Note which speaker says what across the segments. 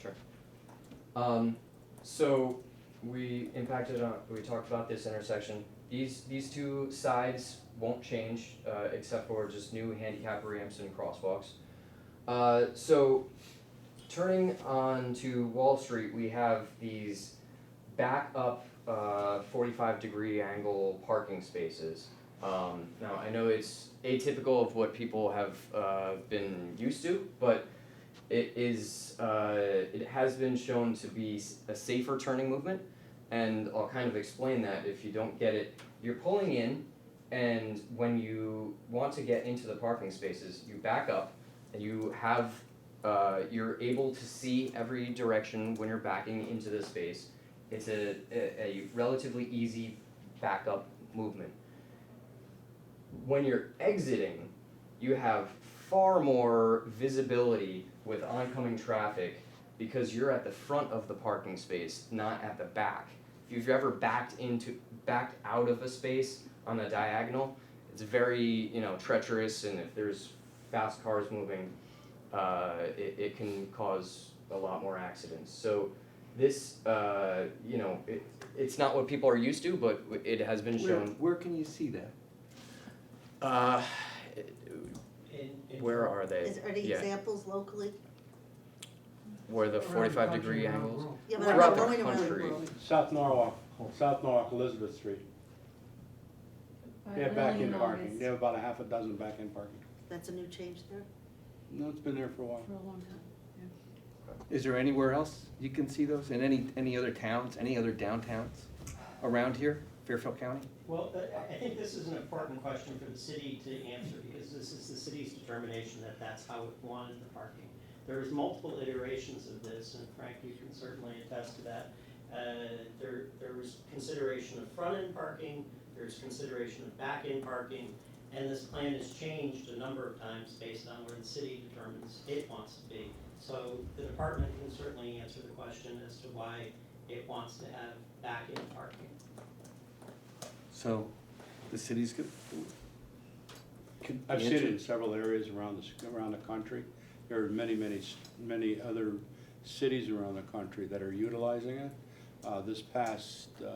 Speaker 1: Sure. Um, so we impacted on, we talked about this intersection. These, these two sides won't change, uh, except for just new handicap ramps and crosswalks. Uh, so turning on to Wall Street, we have these back up, uh, forty-five degree angle parking spaces. Um, now, I know it's atypical of what people have, uh, been used to, but it is uh, it has been shown to be s- a safer turning movement and i'll kind of explain that if you don't get it you're pulling in and when you want to get into the parking spaces you back up and you have uh, you're able to see every direction when you're backing into the space it's a, a, a relatively easy backup movement when you're exiting you have far more visibility with oncoming traffic because you're at the front of the parking space, not at the back. If you've ever backed into backed out of a space on a diagonal, it's very you know treacherous, and if there's fast cars moving, uh, it, it can cause a lot more accidents. So this uh, you know it, it's not what people are used to, but it has been
Speaker 2: Where,
Speaker 1: shown.
Speaker 2: where can you see that?
Speaker 1: Uh,
Speaker 3: In- in-
Speaker 1: where are they?
Speaker 4: Is there any
Speaker 1: Yeah.
Speaker 4: examples locally?
Speaker 1: Where the
Speaker 3: around the
Speaker 1: forty-five
Speaker 3: country,
Speaker 1: degree
Speaker 3: around the
Speaker 1: angles?
Speaker 3: world.
Speaker 4: Yeah, but
Speaker 1: Throughout
Speaker 4: I'm
Speaker 1: the
Speaker 4: going around the
Speaker 1: country.
Speaker 4: world.
Speaker 5: South Norwalk, South Norwalk, Elizabeth Street. They have back-in parking. They have about a half a dozen back-in parking.
Speaker 4: That's a new change there?
Speaker 5: No, it's been there for a while.
Speaker 6: For a long time.
Speaker 2: Is there anywhere else you can see those? In any, any other towns, any other downtowns around here, Fairfield County?
Speaker 3: Well, uh, I, I think this is an important question for the city to answer, because this is the city's determination that that's how it wanted the parking. There was multiple iterations of this, and Frank, you can certainly attest to that. Uh, there, there was consideration of front-end parking, there's consideration of back-end parking, and this plan has changed a number of times based on where the city determines it wants to be. So the department can certainly answer the question as to why it wants to have back-end parking.
Speaker 2: So the city's, go- could
Speaker 5: I've seen it in
Speaker 2: answer-
Speaker 5: several areas around the, s- around the country. There are many, many, s- many other cities around the country that are utilizing it. Uh, this past, uh,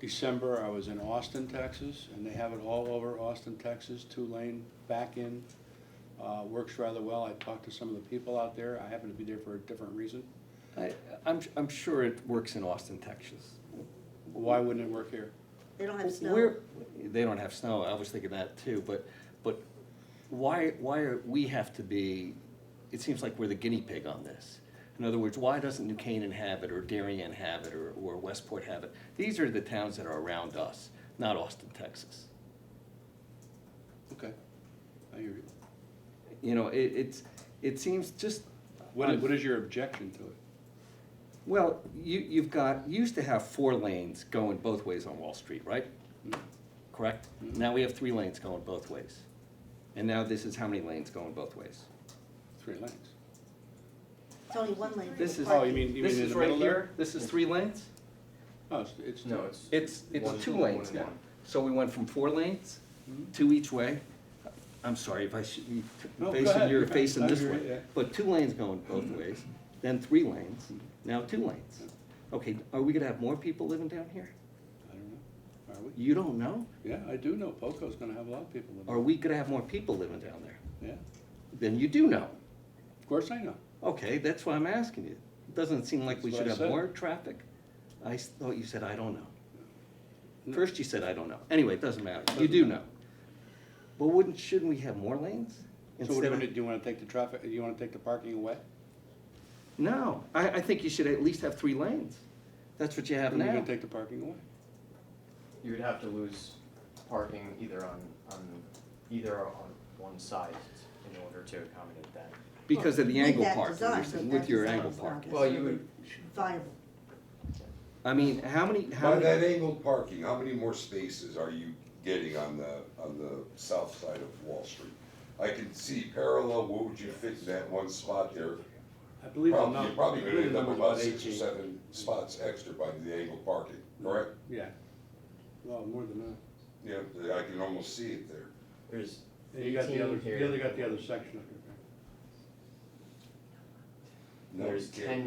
Speaker 5: December, I was in Austin, Texas, and they have it all over Austin, Texas, two-lane back-in. Uh, works rather well. I talked to some of the people out there. I happened to be there for a different reason.
Speaker 2: I, I'm, I'm sure it works in Austin, Texas.
Speaker 5: Why wouldn't it work here?
Speaker 4: They don't have snow.
Speaker 2: Where, they don't have snow, I was thinking that too, but, but why, why are, we have to be, it seems like we're the guinea pig on this. In other words, why doesn't New Canaan have it, or Darien have it, or, or Westport have it? These are the towns that are around us, not Austin, Texas.
Speaker 5: Okay, I hear you.
Speaker 2: You know, it, it's, it seems just,
Speaker 5: What is,
Speaker 2: Um,
Speaker 5: what is your objection to it?
Speaker 2: well, you, you've got, you used to have four lanes going both ways on Wall Street, right? Correct?
Speaker 5: Mhm.
Speaker 2: Now we have three lanes going both ways. And now this is how many lanes going both ways?
Speaker 5: Three lanes.
Speaker 4: It's only one lane. for
Speaker 2: This
Speaker 4: the
Speaker 2: is-
Speaker 5: Oh, you
Speaker 4: parking.
Speaker 5: mean, you
Speaker 2: This
Speaker 5: mean in
Speaker 2: is
Speaker 5: the
Speaker 2: right
Speaker 5: middle there?
Speaker 2: here, this is three lanes?
Speaker 5: Oh, it's, it's.
Speaker 1: No, it's
Speaker 2: It's,
Speaker 1: One-
Speaker 2: it's two
Speaker 1: one
Speaker 2: lanes
Speaker 1: and
Speaker 2: now.
Speaker 1: one.
Speaker 2: So we went from four lanes, two each way. I'm sorry if I should, you-
Speaker 5: No, go
Speaker 2: facing,
Speaker 5: ahead.
Speaker 2: you're facing
Speaker 5: I
Speaker 2: this
Speaker 5: agree,
Speaker 2: way.
Speaker 5: yeah.
Speaker 2: But two lanes going both ways, then three lanes, now two lanes. Okay, are we gonna have more people living down here?
Speaker 5: I don't know. Are we?
Speaker 2: You don't know?
Speaker 5: Yeah, I do know Poco's gonna have a lot of people in
Speaker 2: Are we gonna have more people living down there?
Speaker 5: it. Yeah, of
Speaker 2: Then you do know.
Speaker 5: course I know.
Speaker 2: Okay, that's why I'm asking you. Doesn't seem like we
Speaker 5: That's
Speaker 2: should
Speaker 5: what I
Speaker 2: have
Speaker 5: said.
Speaker 2: more traffic. I s- thought you said, I don't know.
Speaker 5: No.
Speaker 2: First you said, I don't know. Anyway, it doesn't matter. You
Speaker 5: Doesn't
Speaker 2: do know.
Speaker 5: matter.
Speaker 2: But wouldn't, shouldn't we have more lanes?
Speaker 5: So what do
Speaker 2: instead
Speaker 5: you
Speaker 2: of?
Speaker 5: wanna, do you wanna take the traffic, you wanna take the parking away?
Speaker 2: No, I, I think you should at least have three lanes. That's what you have
Speaker 5: Or You're
Speaker 2: now.
Speaker 5: gonna take the parking away?
Speaker 1: you would have to lose parking either on, on, either on one side in order to accommodate that.
Speaker 2: Because of the
Speaker 4: With
Speaker 2: angle
Speaker 4: that
Speaker 2: parking,
Speaker 4: design,
Speaker 2: you're
Speaker 4: but
Speaker 2: saying,
Speaker 4: that
Speaker 2: with your
Speaker 4: design
Speaker 2: angle
Speaker 4: is not
Speaker 2: parking.
Speaker 1: Well, you
Speaker 4: necessarily Viable.
Speaker 2: I mean, how many, how
Speaker 7: By that
Speaker 2: many,
Speaker 7: angled parking, how many more spaces are you getting on the, on the south side of Wall Street? I can see parallel, what would you fit in that one spot there?
Speaker 5: I believe the
Speaker 7: Probably-
Speaker 5: number.
Speaker 7: You're probably gonna end up with about six or
Speaker 5: 18.
Speaker 7: seven spots extra by the angled parking, correct?
Speaker 5: Yeah. Well, more than that.
Speaker 7: Yeah, I can almost see it there.
Speaker 1: There's
Speaker 5: And you got the other,
Speaker 1: Eighteen here.
Speaker 5: the other got the other section up there.
Speaker 7: No, you
Speaker 1: There's
Speaker 7: can't.
Speaker 1: ten